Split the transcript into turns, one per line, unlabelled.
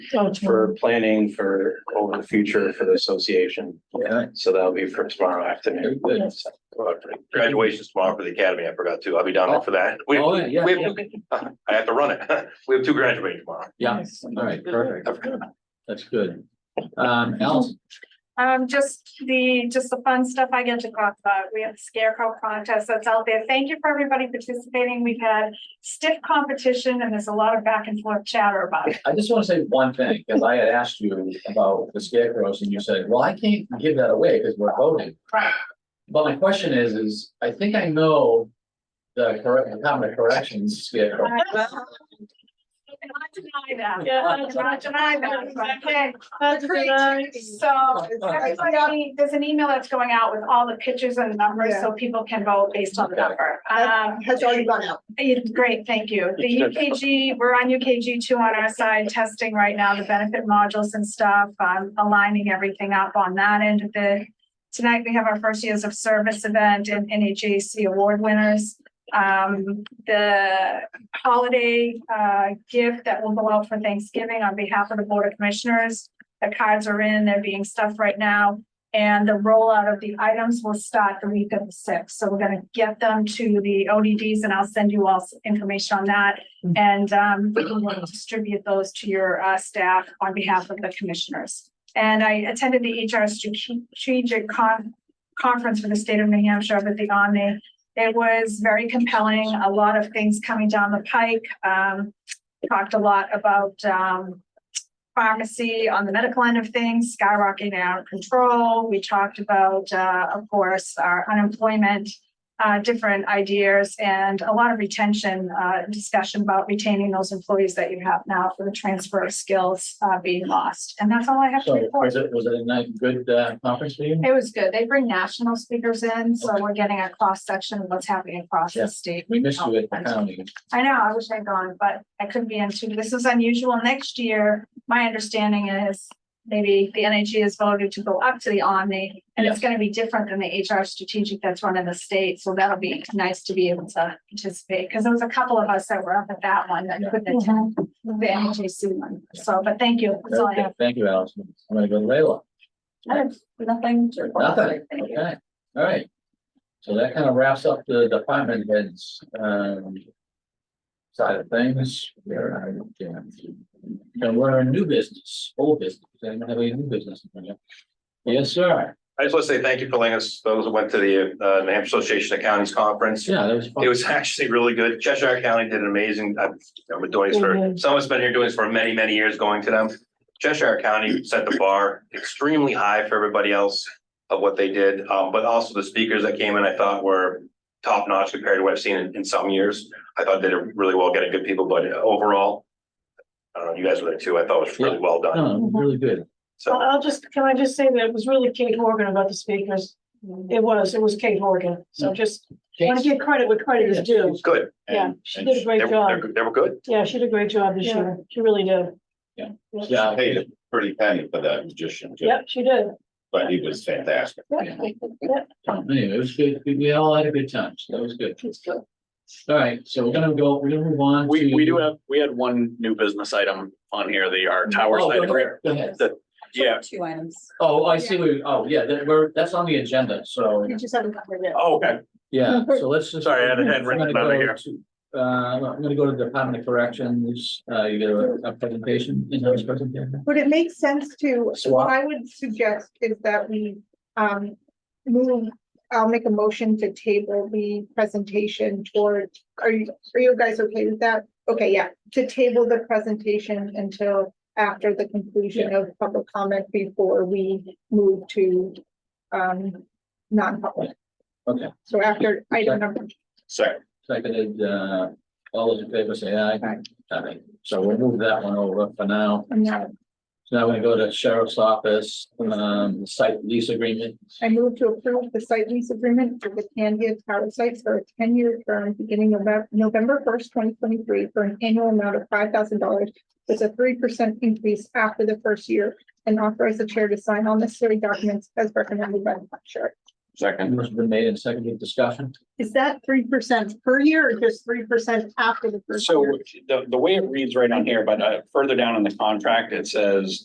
for planning for over the future for the association.
Okay.
So that'll be for tomorrow afternoon.
Yes.
Graduation's tomorrow for the academy. I forgot too. I'll be down there for that. We,
Oh, yeah,
we
yeah,
have, I have to run it. We have two graduating tomorrow.
yeah, all right, perfect,
I forgot.
that's good. Um, Alice,
Um, just the, just the fun stuff I get to talk about. We have the scarecrow contest that's out there. Thank you for everybody participating. We've had stiff competition and there's a lot of back and forth chatter about it.
I just want to say one thing, because I had asked you about the scarecrows and you said, well, I can't give that away because we're voting.
Right.
But my question is, is I think I know the correct, the common corrections scarecrow.
I cannot deny that. I cannot deny that. but I can. So everybody, there's an email that's going out with all the pictures and numbers, so people can vote based on the number. Um,
Has already gone out.
It's great, thank you. The UKG, we're on UKG two on our side, testing right now, the benefit modules and stuff, um, aligning everything up on that end of it. Tonight, we have our first years of service event and NHAC award winners. Um, the holiday, uh, gift that will go out for Thanksgiving on behalf of the Board of Commissioners. The cards are in, they're being stuffed right now. And the rollout of the items will start the week of the sixth, so we're gonna get them to the ODDs and I'll send you all s- information on that. And um, we can distribute those to your uh, staff on behalf of the commissioners. And I attended the HR strategic con- conference for the state of New Hampshire up at the Omni. It was very compelling, a lot of things coming down the pike. Um, talked a lot about um, pharmacy on the medical end of things skyrocketing out of control. We talked about, uh, of course, our unemployment, uh, different ideas and a lot of retention, uh, discussion about retaining those employees that you have now for the transfer of skills, uh, being lost. And that's all I have to
So
report.
was it, was it a nice, good uh, conference for you?
It was good. They bring national speakers in, so we're getting a cross section of what's happening across
Yeah.
the state. Oh,
We missed you at the county.
I know, I wish I'd gone, but I couldn't be in two. This is unusual. Next year, my understanding is maybe the NHG has voted to go up to the Omni, and it's gonna be different than the HR strategic that's run in the state, so that'll be nice to be able to participate, because there was a couple of us that were up at that one that couldn't attend the NHGC one, so, but thank you, that's all I
Okay,
have.
Thank you, Allison. I'm gonna go to Leila.
I have nothing to report.
Nothing,
Thank you.
okay, all right. So that kind of wraps up the department heads, um. Side of things, Where I- yeah. And we're in new business, old business, anyone have any new business? Yes, sir,
I just want to say thank you for letting us, those who went to the uh, New Hampshire Association of Counties Conference.
yeah, that was
It
fun,
was actually really good. Cheshire County did an amazing, uh, I've I've been doing this for, someone's been here doing this for many, many years, going to them. Cheshire County set the bar extremely high for everybody else of what they did, um, but also the speakers that came in, I thought were top notch compared to what I've seen in, in some years. I thought they did really well getting good people, but overall, I don't know, you guys were there too. I thought it was really well done.
no,
uh,
really good,
So
I'll I'll just, can I just say that it was really Kate Horgan about the speakers? It was, it was Kate Horgan. So just want to give credit where credit is due.
good.
Yeah,
And-
she did a great
They were,
job.
they were good.
Yeah, she did a great job this year. She really did.
Yeah.
Yeah.
yeah,
paid a pretty penny for that magician, too,
Yep, she did.
but he was fantastic.
Yep.
anyway, it was good, we, we all had a good time, so that was good.
It's good.
All right, so we're gonna go, we're gonna move on.
We,
to-
we do have, we had one new business item on here, the, our tower
Oh,
site
go
agreement.
ahead, go ahead.
Yeah,
Two items.
Oh, I see, we, oh, yeah, that, we're, that's on the agenda, so.
You just haven't covered it.
oh, okay.
Yeah, so let's just.
Sorry, I had it written
I'm gonna
down
go
here.
to, Uh, I'm gonna go to Department of Corrections, uh, you get a, a presentation, in those presentation?
Would it make sense to, what
Swap,
I would suggest is that we, um, move, I'll make a motion to table the presentation toward, are you, are you guys okay with that? Okay, yeah, to table the presentation until after the conclusion of public comment before we move to, um, non-public.
Okay.
So after item number
Second,
seconded, uh, all those in favor say aye.
Aye.
Aye. so we'll move that one over for now,
I'm not-
so now we're gonna go to Sheriff's Office, um, site lease agreement.
I move to approve the site lease agreement for the Candia Tower sites for a ten-year term beginning November, November first, twenty twenty-three for an annual amount of five thousand dollars. with a three percent increase after the first year and authorize the chair to sign all necessary documents as recommended by the clerk.
Second.
Motion's been made and seconded discussion.
Is that three percent per year or just three percent after the first year?
So the, the way it reads right on here, but uh, further down in the contract, it says